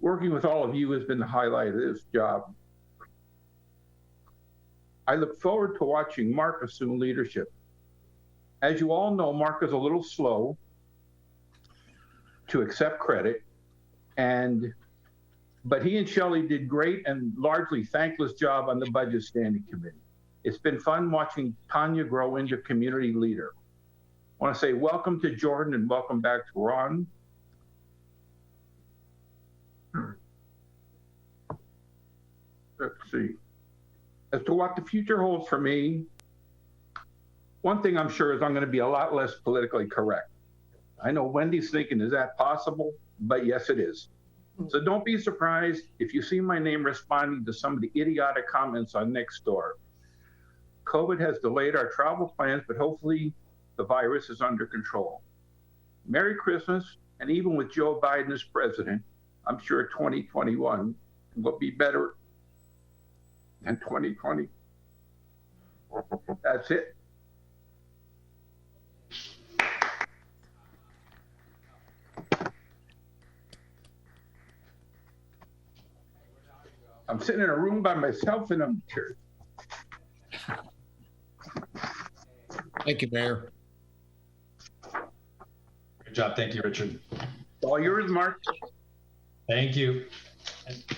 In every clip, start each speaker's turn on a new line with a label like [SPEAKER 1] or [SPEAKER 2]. [SPEAKER 1] working with all of you has been the highlight of this job. I look forward to watching Mark assume leadership. As you all know, Mark is a little slow to accept credit, and but he and Shelley did great and largely thankless job on the budget standing committee. It's been fun watching Tanya grow into community leader. I want to say welcome to Jordan and welcome back to Ron. Let's see. As to what the future holds for me, one thing I'm sure is I'm going to be a lot less politically correct. I know Wendy's thinking, is that possible? But yes, it is. So don't be surprised if you see my name responding to some of the idiotic comments on Nextdoor. COVID has delayed our travel plans, but hopefully the virus is under control. Merry Christmas, and even with Joe Biden as president, I'm sure 2021 will be better than 2020. That's it. I'm sitting in a room by myself and I'm sure.
[SPEAKER 2] Thank you, Mayor.
[SPEAKER 3] Good job. Thank you, Richard.
[SPEAKER 1] All yours, Mark.
[SPEAKER 3] Thank you.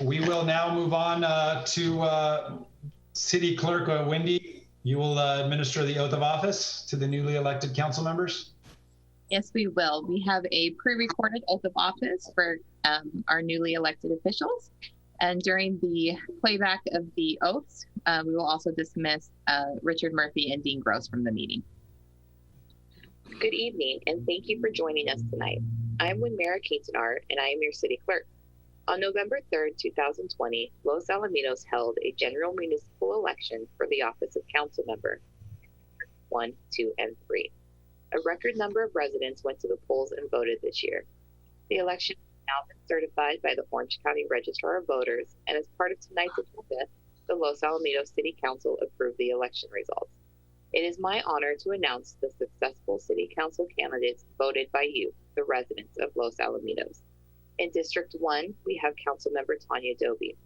[SPEAKER 3] We will now move on uh, to uh, City Clerk uh, Wendy. You will uh, administer the oath of office to the newly elected council members.
[SPEAKER 4] Yes, we will. We have a pre-recorded oath of office for um, our newly elected officials. And during the playback of the oaths, uh, we will also dismiss uh, Richard Murphy and Dean Gross from the meeting.
[SPEAKER 5] Good evening, and thank you for joining us tonight. I'm Winmara Catenar, and I am your city clerk. On November 3rd, 2020, Los Alamitos held a general municipal election for the office of council member 1, 2, and 3. A record number of residents went to the polls and voted this year. The election has now been certified by the Orange County Registrar of Voters, and as part of tonight's agenda, the Los Alamitos City Council approved the election results. It is my honor to announce the successful city council candidates voted by you, the residents of Los Alamitos. In District 1, we have Councilmember Tanya Doby.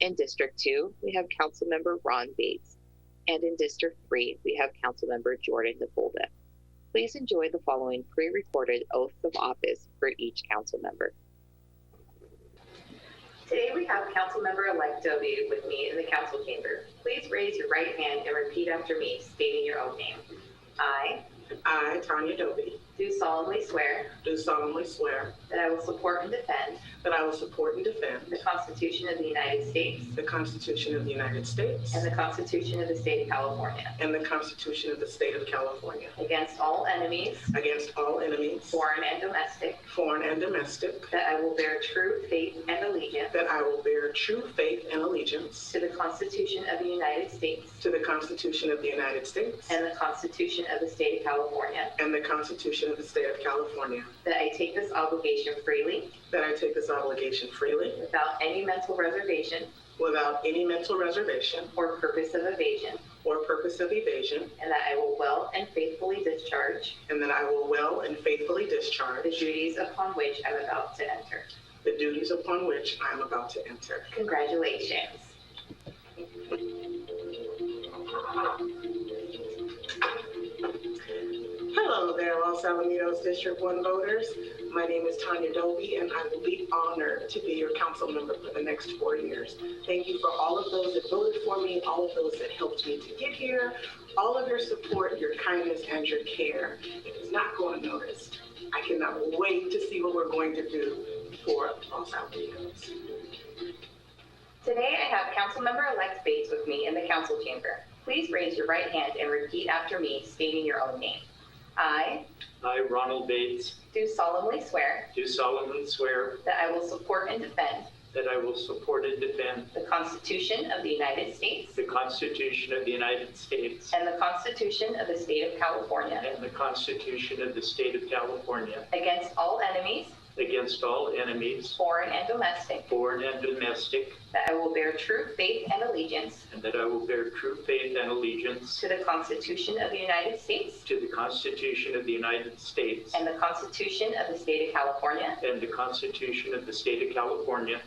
[SPEAKER 5] In District 2, we have Councilmember Ron Bates. And in District 3, we have Councilmember Jordan Nabolda. Please enjoy the following pre recorded oaths of office for each council member.
[SPEAKER 6] Today we have Councilmember-elect Doby with me in the council chamber. Please raise your right hand and repeat after me, stating your own name. I
[SPEAKER 7] I, Tanya Doby,
[SPEAKER 6] do solemnly swear
[SPEAKER 7] do solemnly swear
[SPEAKER 6] that I will support and defend
[SPEAKER 7] that I will support and defend
[SPEAKER 6] the Constitution of the United States
[SPEAKER 7] the Constitution of the United States
[SPEAKER 6] and the Constitution of the State of California
[SPEAKER 7] and the Constitution of the State of California
[SPEAKER 6] against all enemies,
[SPEAKER 7] against all enemies,
[SPEAKER 6] foreign and domestic,
[SPEAKER 7] foreign and domestic,
[SPEAKER 6] that I will bear true faith and allegiance
[SPEAKER 7] that I will bear true faith and allegiance
[SPEAKER 6] to the Constitution of the United States
[SPEAKER 7] to the Constitution of the United States
[SPEAKER 6] and the Constitution of the State of California,
[SPEAKER 7] and the Constitution of the State of California,
[SPEAKER 6] that I take this obligation freely
[SPEAKER 7] that I take this obligation freely
[SPEAKER 6] without any mental reservation
[SPEAKER 7] without any mental reservation
[SPEAKER 6] or purpose of evasion,
[SPEAKER 7] or purpose of evasion,
[SPEAKER 6] and that I will well and faithfully discharge
[SPEAKER 7] and that I will well and faithfully
[SPEAKER 6] the
[SPEAKER 7] discharge
[SPEAKER 6] duties upon which I'm about to enter.
[SPEAKER 7] the duties upon which I am about to enter.
[SPEAKER 6] Congratulations.
[SPEAKER 7] Hello there, Los Alamitos District 1 voters. My name is Tanya Doby, and I will be honored to be your council member for the next four years. Thank you for all of those that voted for me, all of those that helped me to get here, all of your support, your kindness, and your care. It is not going unnoticed. I cannot wait to see what we're going to do for Los Alamitos.
[SPEAKER 6] Today, I have Councilmember-elect Bates with me in the council chamber. Please raise your right hand and repeat after me, stating your own name. I
[SPEAKER 8] I, Ronald Bates,
[SPEAKER 6] do solemnly swear
[SPEAKER 8] do solemnly swear
[SPEAKER 6] that I will support and defend
[SPEAKER 8] that I will support and defend
[SPEAKER 6] the Constitution of the United States
[SPEAKER 8] the Constitution of the United States
[SPEAKER 6] and the Constitution of the State of California
[SPEAKER 8] and the Constitution of the State of California
[SPEAKER 6] against all enemies,
[SPEAKER 8] against all enemies,
[SPEAKER 6] foreign and domestic,
[SPEAKER 8] foreign and domestic,
[SPEAKER 6] that I will bear true faith and allegiance
[SPEAKER 8] and that I will bear true faith and allegiance
[SPEAKER 6] to the Constitution of the United States
[SPEAKER 8] to the Constitution of the United States
[SPEAKER 6] and the Constitution of the State of California,
[SPEAKER 8] and the Constitution of the State of California,